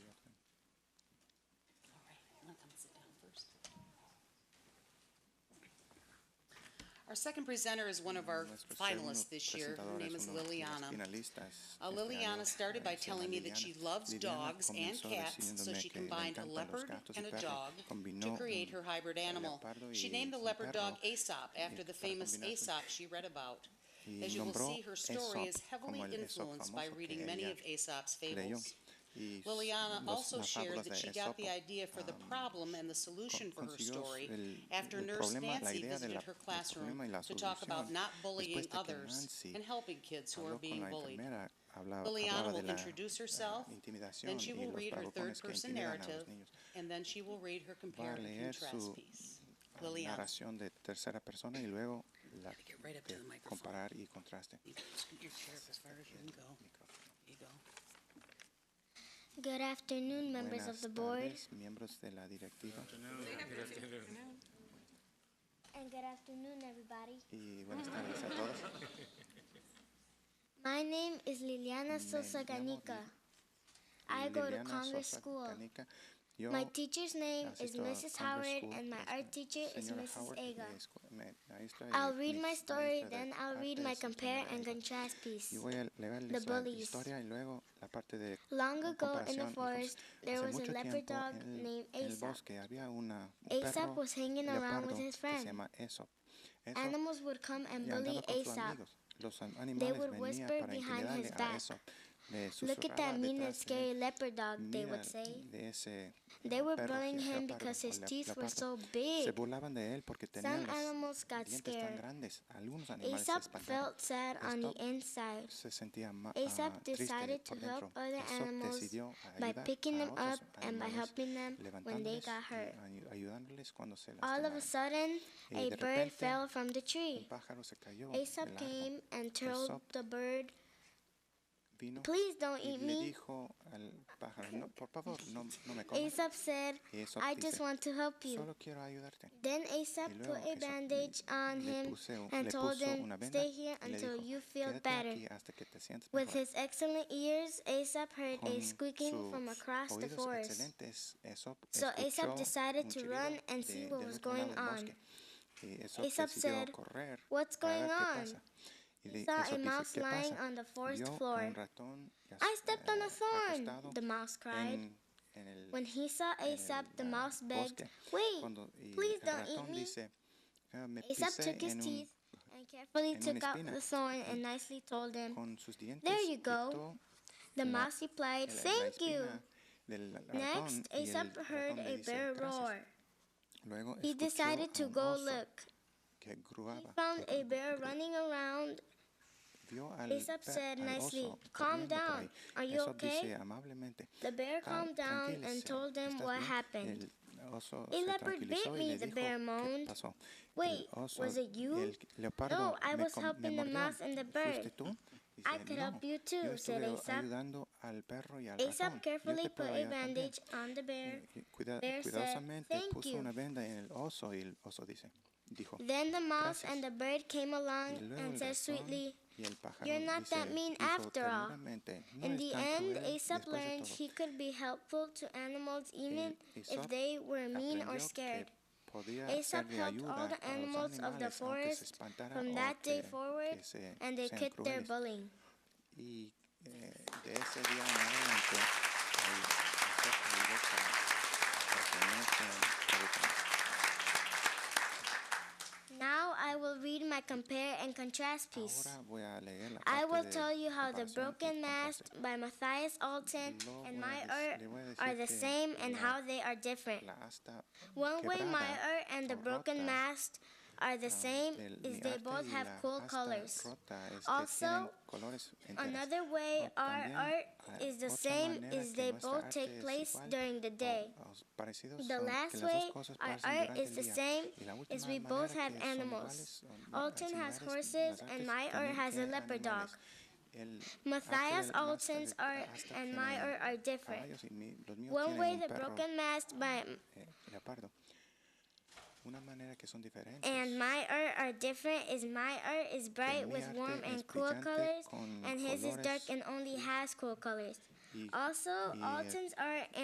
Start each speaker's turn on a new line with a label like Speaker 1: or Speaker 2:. Speaker 1: Our second presenter is one of our finalists this year. Her name is Liliana. Uh, Liliana started by telling me that she loves dogs and cats, so she combined a leopard and a dog to create her hybrid animal. She named the leopard dog Aesop after the famous Aesop she read about. As you will see, her story is heavily influenced by reading many of Aesop's fables. Liliana also shared that she got the idea for
Speaker 2: um,
Speaker 1: the problem and the solution for her story after Nurse Nancy visited her classroom to talk about not bullying others and helping kids who are being bullied. Liliana will
Speaker 2: eh,
Speaker 1: introduce herself, then she will read her third-person narrative, and then she will read her compare and
Speaker 2: leer
Speaker 1: contrast
Speaker 2: su,
Speaker 1: piece. Liliana,
Speaker 2: narración de tercera persona y luego la
Speaker 1: Gotta get right up to
Speaker 2: de
Speaker 1: the microphone.
Speaker 2: comparar y contraste.
Speaker 1: you can scoot your chair up as far as you can go. You go.
Speaker 3: Good afternoon, members of the board.
Speaker 2: Buenas tardes, miembros de la directiva
Speaker 3: And good afternoon, everybody.
Speaker 2: y buenas tardes a todos.
Speaker 3: My name is Liliana Sosa
Speaker 2: llamo
Speaker 3: Ganica.
Speaker 2: Lil-
Speaker 3: I go to
Speaker 2: Liliana
Speaker 3: Congress
Speaker 2: Sosa
Speaker 3: School.
Speaker 2: Canica. Yo,
Speaker 3: My teacher's name is
Speaker 2: asisto a
Speaker 3: Mrs.
Speaker 2: Congress
Speaker 3: Howard,
Speaker 2: School.
Speaker 3: and my
Speaker 2: Es-
Speaker 3: art teacher is
Speaker 2: señora
Speaker 3: Mrs.
Speaker 2: Howard,
Speaker 3: Aga.
Speaker 2: mi escu- me- maestra y
Speaker 3: I'll read
Speaker 2: mi
Speaker 3: my story,
Speaker 2: maestra de
Speaker 3: then I'll read
Speaker 2: arte
Speaker 3: my
Speaker 2: es
Speaker 3: compare
Speaker 2: señora
Speaker 3: and
Speaker 2: Aga.
Speaker 3: contrast piece.
Speaker 2: Yo voy a leer la
Speaker 3: The bullies.
Speaker 2: historia y luego la parte de
Speaker 3: Long ago in the
Speaker 2: comparación y cosas.
Speaker 3: forest, there
Speaker 2: Hace
Speaker 3: was a
Speaker 2: mucho
Speaker 3: leopard
Speaker 2: tiempo
Speaker 3: dog
Speaker 2: en el-
Speaker 3: named
Speaker 2: en el
Speaker 3: Aesop.
Speaker 2: bosque había una, un
Speaker 3: Aesop
Speaker 2: perro
Speaker 3: was hanging around
Speaker 2: leopardo
Speaker 3: with his
Speaker 2: que se
Speaker 3: friend.
Speaker 2: llama Aesop. Aesop
Speaker 3: Animals would come and
Speaker 2: y
Speaker 3: bully
Speaker 2: andaba con sus
Speaker 3: Aesop.
Speaker 2: amigos. Los an- animales
Speaker 3: would
Speaker 2: venían
Speaker 3: whisper
Speaker 2: para
Speaker 3: behind
Speaker 2: intimidarle
Speaker 3: his
Speaker 2: a
Speaker 3: back.
Speaker 2: Aesop. Le
Speaker 3: Look
Speaker 2: susurraba
Speaker 3: at that mean and
Speaker 2: detrás de
Speaker 3: scary
Speaker 2: él,
Speaker 3: leopard dog, they
Speaker 2: "Mira
Speaker 3: would say.
Speaker 2: de ese
Speaker 3: They were
Speaker 2: perro
Speaker 3: bullying him
Speaker 2: leopardo
Speaker 3: because
Speaker 2: o
Speaker 3: his
Speaker 2: leo-
Speaker 3: teeth were
Speaker 2: leopardo".
Speaker 3: so
Speaker 2: Se
Speaker 3: big.
Speaker 2: burlaban de él porque tenía
Speaker 3: Some
Speaker 2: los
Speaker 3: animals got
Speaker 2: dientes tan
Speaker 3: scared.
Speaker 2: grandes. Algunos animales se
Speaker 3: Aesop
Speaker 2: espantaron.
Speaker 3: felt sad on the
Speaker 2: Aesop
Speaker 3: inside.
Speaker 2: se sentía ma-
Speaker 3: Aesop
Speaker 2: ah, triste
Speaker 3: decided to
Speaker 2: por
Speaker 3: help
Speaker 2: dentro.
Speaker 3: other
Speaker 2: Aesop
Speaker 3: animals
Speaker 2: decidió
Speaker 3: by
Speaker 2: ayudar
Speaker 3: picking
Speaker 2: a
Speaker 3: them
Speaker 2: otros
Speaker 3: up and by
Speaker 2: animales,
Speaker 3: helping them when they
Speaker 2: levantándoles
Speaker 3: got
Speaker 2: y
Speaker 3: hurt.
Speaker 2: ayu- ayudándoles cuando se
Speaker 3: All of a
Speaker 2: lastimaron.
Speaker 3: sudden,
Speaker 2: Y
Speaker 3: a
Speaker 2: de
Speaker 3: bird
Speaker 2: repente,
Speaker 3: fell from the
Speaker 2: Un
Speaker 3: tree.
Speaker 2: pájaro se cayó del
Speaker 3: Aesop
Speaker 2: árbol.
Speaker 3: came and told
Speaker 2: Aesop
Speaker 3: the bird,
Speaker 2: Vino
Speaker 3: Please don't
Speaker 2: y
Speaker 3: eat
Speaker 2: le
Speaker 3: me.
Speaker 2: dijo al pájaro, "No, por favor, no, no me comas.
Speaker 3: Aesop said,
Speaker 2: Y Aesop
Speaker 3: I
Speaker 2: dice,
Speaker 3: just want to help you.
Speaker 2: Solo quiero ayudarte.
Speaker 3: Then Aesop
Speaker 2: Y
Speaker 3: put
Speaker 2: luego
Speaker 3: a
Speaker 2: Aesop
Speaker 3: bandage on
Speaker 2: le
Speaker 3: him
Speaker 2: puse un-
Speaker 3: and
Speaker 2: le
Speaker 3: told
Speaker 2: puso
Speaker 3: him,
Speaker 2: una venda
Speaker 3: Stay here
Speaker 2: y le
Speaker 3: until
Speaker 2: dijo,
Speaker 3: you feel
Speaker 2: "Quédate
Speaker 3: better.
Speaker 2: aquí hasta que te sientas
Speaker 3: With
Speaker 2: mejor".
Speaker 3: his excellent ears, Aesop heard a
Speaker 2: Con
Speaker 3: squeaking
Speaker 2: sus
Speaker 3: from across the
Speaker 2: oídos
Speaker 3: forest.
Speaker 2: excelentes, Aesop
Speaker 3: So Aesop
Speaker 2: escuchó
Speaker 3: decided
Speaker 2: un
Speaker 3: to
Speaker 2: chillido
Speaker 3: run and see
Speaker 2: de-
Speaker 3: what
Speaker 2: del
Speaker 3: was
Speaker 2: otro lado
Speaker 3: going
Speaker 2: del
Speaker 3: on.
Speaker 2: bosque. Y Aesop
Speaker 3: Aesop
Speaker 2: decidió
Speaker 3: said,
Speaker 2: correr
Speaker 3: "What's
Speaker 2: para
Speaker 3: going
Speaker 2: ver qué
Speaker 3: on?"
Speaker 2: pasa. Y
Speaker 3: He
Speaker 2: le-
Speaker 3: saw
Speaker 2: Aesop
Speaker 3: a
Speaker 2: dice,
Speaker 3: mouse
Speaker 2: "¿Qué
Speaker 3: lying
Speaker 2: pasa?".
Speaker 3: on the forest
Speaker 2: Vio
Speaker 3: floor.
Speaker 2: un ratón y as-
Speaker 3: I stepped on a
Speaker 2: eh,
Speaker 3: thorn,
Speaker 2: acostado
Speaker 3: the mouse cried.
Speaker 2: en- en el-
Speaker 3: When he saw
Speaker 2: en
Speaker 3: Aesop,
Speaker 2: el,
Speaker 3: the
Speaker 2: ah,
Speaker 3: mouse begged,
Speaker 2: bosque.
Speaker 3: Wait,
Speaker 2: Cuando- y
Speaker 3: please
Speaker 2: el
Speaker 3: don't eat
Speaker 2: ratón
Speaker 3: me."
Speaker 2: dice, "Ah, me
Speaker 3: Aesop
Speaker 2: pisé
Speaker 3: took his
Speaker 2: en un-
Speaker 3: teeth and carefully
Speaker 2: en una
Speaker 3: took out
Speaker 2: espina.
Speaker 3: the thorn and nicely told him.
Speaker 2: con sus dientes
Speaker 3: you go.
Speaker 2: quitó
Speaker 3: The
Speaker 2: la-
Speaker 3: mouse replied,
Speaker 2: el- la
Speaker 3: Thank you.
Speaker 2: espina del ratón
Speaker 3: Next,
Speaker 2: y el
Speaker 3: Aesop heard
Speaker 2: ratón le
Speaker 3: a
Speaker 2: dice,
Speaker 3: bear
Speaker 2: "Gracias".
Speaker 3: roar.
Speaker 2: Luego
Speaker 3: He
Speaker 2: escuchó
Speaker 3: decided
Speaker 2: a
Speaker 3: to
Speaker 2: un
Speaker 3: go
Speaker 2: oso
Speaker 3: look.
Speaker 2: que
Speaker 3: He
Speaker 2: gruaba,
Speaker 3: found
Speaker 2: que
Speaker 3: a bear
Speaker 2: gru-
Speaker 3: running around.
Speaker 2: Vio al
Speaker 3: Aesop
Speaker 2: pe-
Speaker 3: said
Speaker 2: al
Speaker 3: nicely,
Speaker 2: oso
Speaker 3: "Calm
Speaker 2: corriendo por
Speaker 3: down.
Speaker 2: ahí".
Speaker 3: Are you
Speaker 2: Aesop dice
Speaker 3: okay?
Speaker 2: amablemente,
Speaker 3: The bear
Speaker 2: "Cal-
Speaker 3: calmed down and
Speaker 2: tranquilícese,
Speaker 3: told him
Speaker 2: Ah, ¿estás
Speaker 3: what
Speaker 2: bien?".
Speaker 3: happened.
Speaker 2: El oso
Speaker 3: "A
Speaker 2: se
Speaker 3: leopard
Speaker 2: tranquilizó
Speaker 3: bit
Speaker 2: y
Speaker 3: me",
Speaker 2: le
Speaker 3: the
Speaker 2: dijo,
Speaker 3: bear
Speaker 2: "¿Qué
Speaker 3: moaned.
Speaker 2: pasó?".
Speaker 3: "Wait,
Speaker 2: el oso,
Speaker 3: was it you?
Speaker 2: El leopardo
Speaker 3: "No, I
Speaker 2: me
Speaker 3: was
Speaker 2: com- me
Speaker 3: helping the
Speaker 2: mordió.
Speaker 3: mouse and the
Speaker 2: "¿Fuiste
Speaker 3: bird".
Speaker 2: tú?". Dice,
Speaker 3: "I could help
Speaker 2: "No,
Speaker 3: you too",
Speaker 2: yo
Speaker 3: said
Speaker 2: estuve
Speaker 3: Aesop.
Speaker 2: ayudando al perro y al ratón. Yo
Speaker 3: Aesop
Speaker 2: te
Speaker 3: carefully put
Speaker 2: puedo
Speaker 3: a
Speaker 2: ayudar también".
Speaker 3: bandage on the bear.
Speaker 2: Y- y cuida-
Speaker 3: Bear said,
Speaker 2: cuidadosamente
Speaker 3: "Thank
Speaker 2: puso
Speaker 3: you".
Speaker 2: una venda en el oso y el oso dice, dijo,
Speaker 3: Then the mouse
Speaker 2: Gracias.
Speaker 3: and the bird came
Speaker 2: Y
Speaker 3: along
Speaker 2: luego
Speaker 3: and
Speaker 2: el
Speaker 3: said
Speaker 2: ratón
Speaker 3: sweetly,
Speaker 2: y el pájaro
Speaker 3: "You're not
Speaker 2: dice-
Speaker 3: that mean
Speaker 2: dijo
Speaker 3: after all".
Speaker 2: ternuramente, "No
Speaker 3: In
Speaker 2: es
Speaker 3: the
Speaker 2: tan
Speaker 3: end,
Speaker 2: cruel
Speaker 3: Aesop
Speaker 2: después de
Speaker 3: learned
Speaker 2: todo".
Speaker 3: he could be helpful to animals even if
Speaker 2: Aesop
Speaker 3: they were mean or
Speaker 2: Aprendió que
Speaker 3: scared.
Speaker 2: podía ser
Speaker 3: Aesop
Speaker 2: de
Speaker 3: helped
Speaker 2: ayuda
Speaker 3: all
Speaker 2: a los
Speaker 3: the animals of
Speaker 2: animales,
Speaker 3: the
Speaker 2: aunque se
Speaker 3: forest
Speaker 2: espantaran
Speaker 3: from
Speaker 2: o
Speaker 3: that day
Speaker 2: que-
Speaker 3: forward,
Speaker 2: que se-
Speaker 3: and they
Speaker 2: sean
Speaker 3: quit their
Speaker 2: crueles.
Speaker 3: bullying.
Speaker 2: Y eh, de ese día en adelante, el- Aesop ayudó para- para que no se educaran.
Speaker 3: Now I will read my compare and contrast piece.
Speaker 2: Ahora voy a leer la
Speaker 3: I
Speaker 2: parte
Speaker 3: will
Speaker 2: de
Speaker 3: tell you how The
Speaker 2: comparación y
Speaker 3: Broken Mast
Speaker 2: contraste.
Speaker 3: by Matthias Alton
Speaker 2: Luego
Speaker 3: and
Speaker 2: voy a
Speaker 3: my
Speaker 2: dec-
Speaker 3: art
Speaker 2: le voy a
Speaker 3: are
Speaker 2: decir
Speaker 3: the
Speaker 2: que
Speaker 3: same and
Speaker 2: la-
Speaker 3: how they are different.
Speaker 2: La asta
Speaker 3: One way my
Speaker 2: quebrada
Speaker 3: art and The
Speaker 2: o
Speaker 3: Broken
Speaker 2: rota,
Speaker 3: Mast are the same
Speaker 2: ah, del-
Speaker 3: is
Speaker 2: mi
Speaker 3: they
Speaker 2: arte
Speaker 3: both
Speaker 2: y
Speaker 3: have
Speaker 2: la
Speaker 3: cool
Speaker 2: asta
Speaker 3: colors.
Speaker 2: rota es que
Speaker 3: Also,
Speaker 2: tienen colores enteras.
Speaker 3: Another way
Speaker 2: O
Speaker 3: our
Speaker 2: también,
Speaker 3: art
Speaker 2: eh,
Speaker 3: is the
Speaker 2: otra
Speaker 3: same
Speaker 2: manera
Speaker 3: is
Speaker 2: que
Speaker 3: they
Speaker 2: nuestra
Speaker 3: both
Speaker 2: arte
Speaker 3: take
Speaker 2: es
Speaker 3: place
Speaker 2: igual
Speaker 3: during the
Speaker 2: o-
Speaker 3: day.
Speaker 2: o s- parecidos
Speaker 3: The
Speaker 2: son que
Speaker 3: last
Speaker 2: las dos
Speaker 3: way
Speaker 2: cosas
Speaker 3: our
Speaker 2: pasan
Speaker 3: art
Speaker 2: durante
Speaker 3: is
Speaker 2: el
Speaker 3: the
Speaker 2: día. Y
Speaker 3: same
Speaker 2: la
Speaker 3: is
Speaker 2: última
Speaker 3: we both
Speaker 2: manera
Speaker 3: have
Speaker 2: que son
Speaker 3: animals.
Speaker 2: iguales, um,
Speaker 3: Alton has
Speaker 2: similares,
Speaker 3: horses
Speaker 2: las
Speaker 3: and
Speaker 2: artes
Speaker 3: my art
Speaker 2: también
Speaker 3: has a
Speaker 2: tienen
Speaker 3: leopard dog.
Speaker 2: animales. El arte
Speaker 3: Matthias
Speaker 2: del- la asta
Speaker 3: Alton's
Speaker 2: de- la
Speaker 3: art
Speaker 2: asta
Speaker 3: and
Speaker 2: tiene
Speaker 3: my art are different.
Speaker 2: caballos y mi- los míos
Speaker 3: One
Speaker 2: tienen
Speaker 3: way
Speaker 2: un
Speaker 3: the
Speaker 2: perro,
Speaker 3: broken mast by
Speaker 2: eh, leopardo. Una manera que son diferentes.
Speaker 3: and my art are different is my art is bright
Speaker 2: mi
Speaker 3: with
Speaker 2: arte
Speaker 3: warm
Speaker 2: es
Speaker 3: and cool
Speaker 2: brillante
Speaker 3: colors
Speaker 2: con
Speaker 3: and his is dark
Speaker 2: colores
Speaker 3: and only has cool colors.
Speaker 2: y-
Speaker 3: Also,
Speaker 2: y, eh,
Speaker 3: Alton's art